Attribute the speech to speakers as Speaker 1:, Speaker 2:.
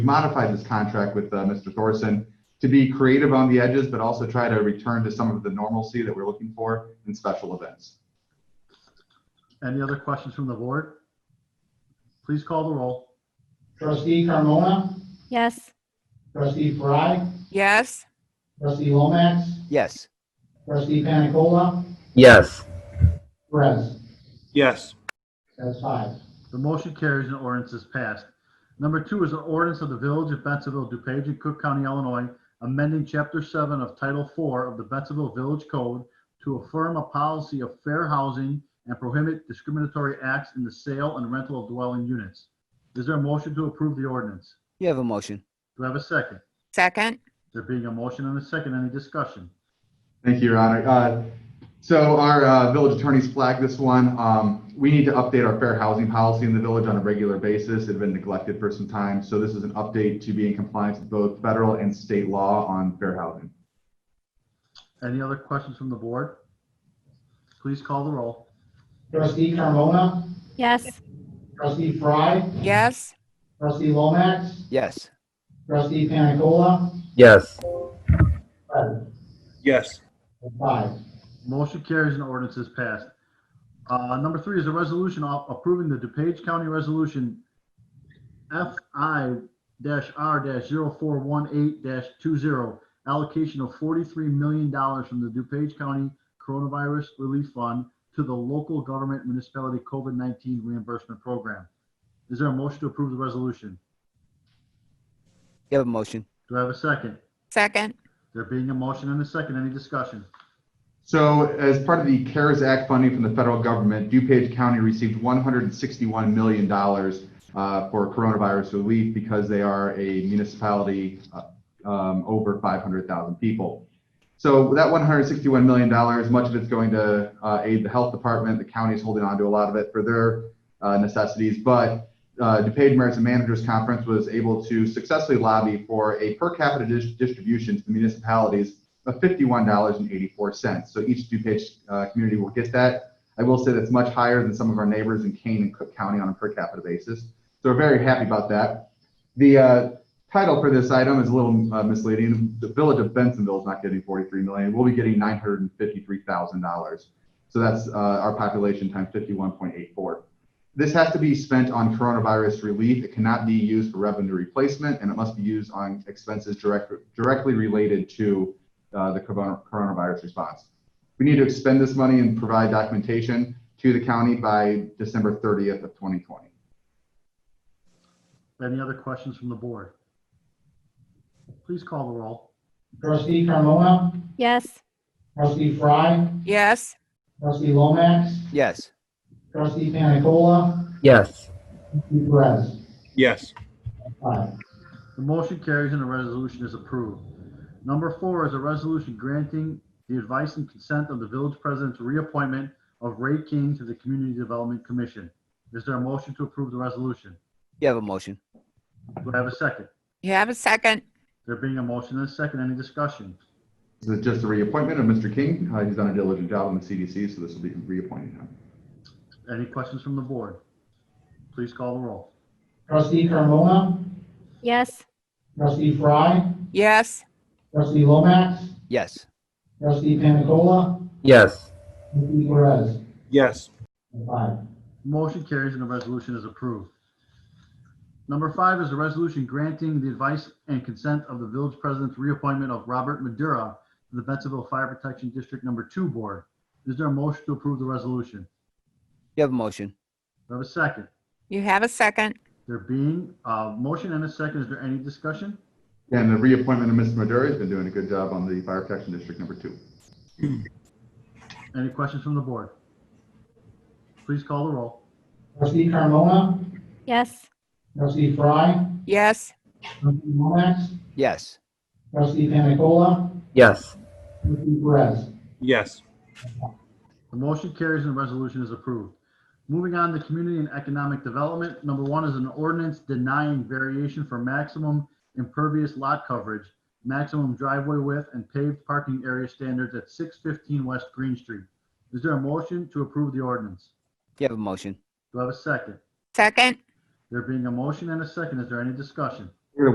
Speaker 1: modified this contract with uh, Mr. Thorson to be creative on the edges, but also try to return to some of the normalcy that we're looking for in special events.
Speaker 2: Any other questions from the board? Please call the roll.
Speaker 3: Trustee Carmona,
Speaker 4: Yes.
Speaker 3: trustee Fry,
Speaker 5: yes,
Speaker 3: trustee Lomax,
Speaker 6: Yes.
Speaker 3: trustee Panicola,
Speaker 7: yes,
Speaker 3: Perez.
Speaker 8: yes,
Speaker 3: That's five.
Speaker 2: The motion carries and ordinance is passed. Number two is an ordinance of the Village of Bensonville, DuPage, and Cook County, Illinois, amending Chapter 7 of Title 4 of the Bensonville Village Code to affirm a policy of fair housing and prohibit discriminatory acts in the sale and rental of dwelling units. Is there a motion to approve the ordinance?
Speaker 6: You have a motion.
Speaker 2: Do I have a second?
Speaker 5: second,
Speaker 2: There being a motion and a second, any discussion?
Speaker 1: Thank you, Your Honor. Uh, So our uh, village attorneys flagged this one. Um, We need to update our fair housing policy in the village on a regular basis. It had been neglected for some time. So this is an update to be in compliance with both federal and state law on fair housing.
Speaker 2: Any other questions from the board? Please call the roll.
Speaker 3: Trustee Carmona,
Speaker 4: Yes.
Speaker 3: trustee Fry,
Speaker 5: yes,
Speaker 3: trustee Lomax,
Speaker 6: Yes.
Speaker 3: trustee Panicola,
Speaker 7: yes,
Speaker 3: Perez.
Speaker 8: yes,
Speaker 3: That's five.
Speaker 2: Motion carries and ordinance is passed. Uh, Number three is a resolution a- approving the DuPage County Resolution FI-R-0418-20, allocation of $43 million from the DuPage County Coronavirus Relief Fund to the Local Government Municipality COVID-19 Reimbursement Program. Is there a motion to approve the resolution?
Speaker 6: You have a motion.
Speaker 2: Do I have a second?
Speaker 5: second,
Speaker 2: There being a motion and a second, any discussion?
Speaker 1: So as part of the CARES Act funding from the federal government, DuPage County received $161 million uh, for coronavirus relief because they are a municipality uh, um, over 500,000 people. So that $161 million, much of it's going to uh, aid the health department. The county is holding on to a lot of it for their uh, necessities. But uh, DuPage Mayors and Managers Conference was able to successfully lobby for a per capita dis- distribution to the municipalities of fifty-one dollars and eighty-four cents. So each DuPage uh, community will get that. I will say that's much higher than some of our neighbors in Kane and Cook County on a per capita basis. So we're very happy about that. The uh, title for this item is a little uh, misleading. The Village of Bensonville is not getting forty-three million. We'll be getting nine hundred and fifty-three thousand dollars. So that's uh, our population times fifty-one point eight four. This has to be spent on coronavirus relief. It cannot be used for revenue replacement, and it must be used on expenses direct, directly related to uh, the corona- coronavirus response. We need to expend this money and provide documentation to the county by December 30th of 2020.
Speaker 2: Any other questions from the board? Please call the roll.
Speaker 3: Trustee Carmona,
Speaker 4: Yes.
Speaker 3: trustee Fry,
Speaker 5: yes,
Speaker 3: trustee Lomax,
Speaker 6: Yes.
Speaker 3: trustee Panicola,
Speaker 7: yes,
Speaker 3: trustee Perez.
Speaker 8: yes,
Speaker 3: Five.
Speaker 2: The motion carries and the resolution is approved. Number four is a resolution granting the advice and consent of the village president's reappointment of Ray King to the Community Development Commission. Is there a motion to approve the resolution?
Speaker 6: You have a motion.
Speaker 2: Do I have a second?
Speaker 5: you have a second,
Speaker 2: There being a motion and a second, any discussion?
Speaker 1: This is just a reappointment of Mr. King. Uh, he's done a diligent job on the CDC, so this will be reappointing him.
Speaker 2: Any questions from the board? Please call the roll.
Speaker 3: Trustee Carmona,
Speaker 4: Yes.
Speaker 3: trustee Fry,
Speaker 5: yes,
Speaker 3: trustee Lomax,
Speaker 6: Yes.
Speaker 3: trustee Panicola,
Speaker 7: yes,
Speaker 3: trustee Perez.
Speaker 8: yes,
Speaker 3: That's Five.
Speaker 2: Motion carries and the resolution is approved. Number five is a resolution granting the advice and consent of the village president's reappointment of Robert Madura to the Bensonville Fire Protection District Number Two Board. Is there a motion to approve the resolution?
Speaker 6: You have a motion.
Speaker 2: Do I have a second?
Speaker 5: you have a second,
Speaker 2: There being a motion and a second, is there any discussion?
Speaker 1: And the reappointment of Mr. Maduri has been doing a good job on the Fire Protection District Number Two.
Speaker 2: Any questions from the board? Please call the roll.
Speaker 3: Trustee Carmona,
Speaker 4: Yes.
Speaker 3: trustee Fry,
Speaker 5: yes,
Speaker 3: trustee Lomax,
Speaker 6: Yes.
Speaker 3: trustee Panicola,
Speaker 7: yes,
Speaker 3: trustee Perez.
Speaker 8: yes,
Speaker 2: The motion carries and the resolution is approved. Moving on to community and economic development. Number one is an ordinance denying variation for maximum impervious lot coverage, maximum driveway width, and paved parking area standards at 615 West Green Street. Is there a motion to approve the ordinance?
Speaker 6: You have a motion.
Speaker 2: Do I have a second?
Speaker 5: second,
Speaker 2: There being a motion and a second, is there any discussion?